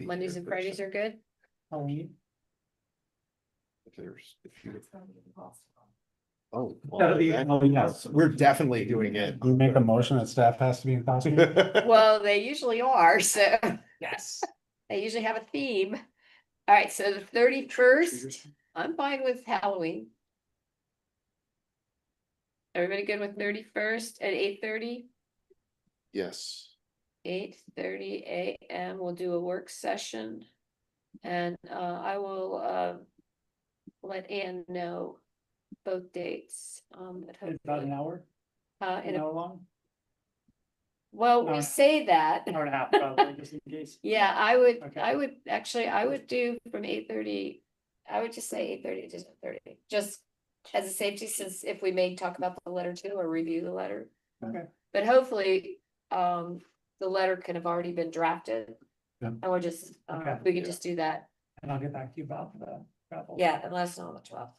Mondays and Fridays are good? Halloween. If there's, if you, oh. well, That'll be- that- oh, yes. We're definitely doing it. We make a motion that staff has to be in costume. Well, they usually are, so Yes. they usually have a theme. All right, so the thirty-first, I'm fine with Halloween. Everybody good with thirty-first at eight thirty? Yes, Eight thirty AM, we'll do a work session. And uh, I will uh. Let Ann know both dates, um, but About hopefully, an hour, uh, in an a, hour long, well, hour. we say that. an hour and a half probably, just in case. Yeah, I would, Okay. I would, actually, I would do from eight thirty, I would just say eight thirty to seven thirty, just. As a safety, since if we may talk about the letter too, or review the letter. Okay. But hopefully, um, the letter can have already been drafted. Yeah. And we're just, uh, Okay. we can Yeah. just do that, And I'll get back to you about the travel. yeah, unless on the twelfth.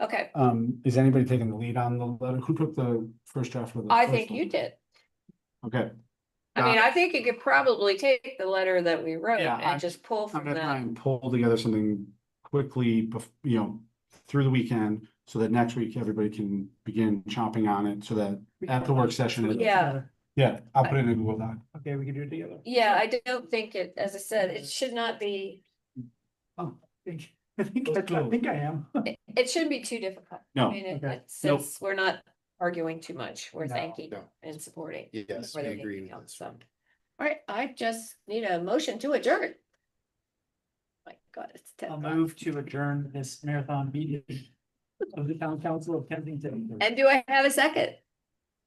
Okay, Um, is anybody taking the lead on the letter? Who took the first draft of the? I first think you one? did, Okay, I mean, I think you could probably take the letter that we wrote Yeah, and I'm- just pull I'm from gonna try that. and pull together something quickly, bef- you know, through the weekend, so that next week everybody can begin chomping on it, so that, We At the can- work session, it- Yeah. yeah, I'll put it in a Google Doc. Okay, we can do it together. Yeah, I don't think it, as I said, it should not be, I think- I think, Let's I go. think I am. It, it shouldn't be too difficult. I No, mean, it- okay. it- since we're not arguing too much, we're No, thanking no. and supporting. yes, more we than agree anything with else, this. so. All right, I just need a motion to adjourn. My God, it's ten. I'll o'clock. move to adjourn this marathon meeting of the town council of Kensington. And do I have a second?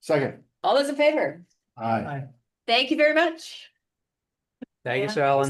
Second. All those in favor? aye. Aye. Thank you very much. Thank you, Yeah. Sal.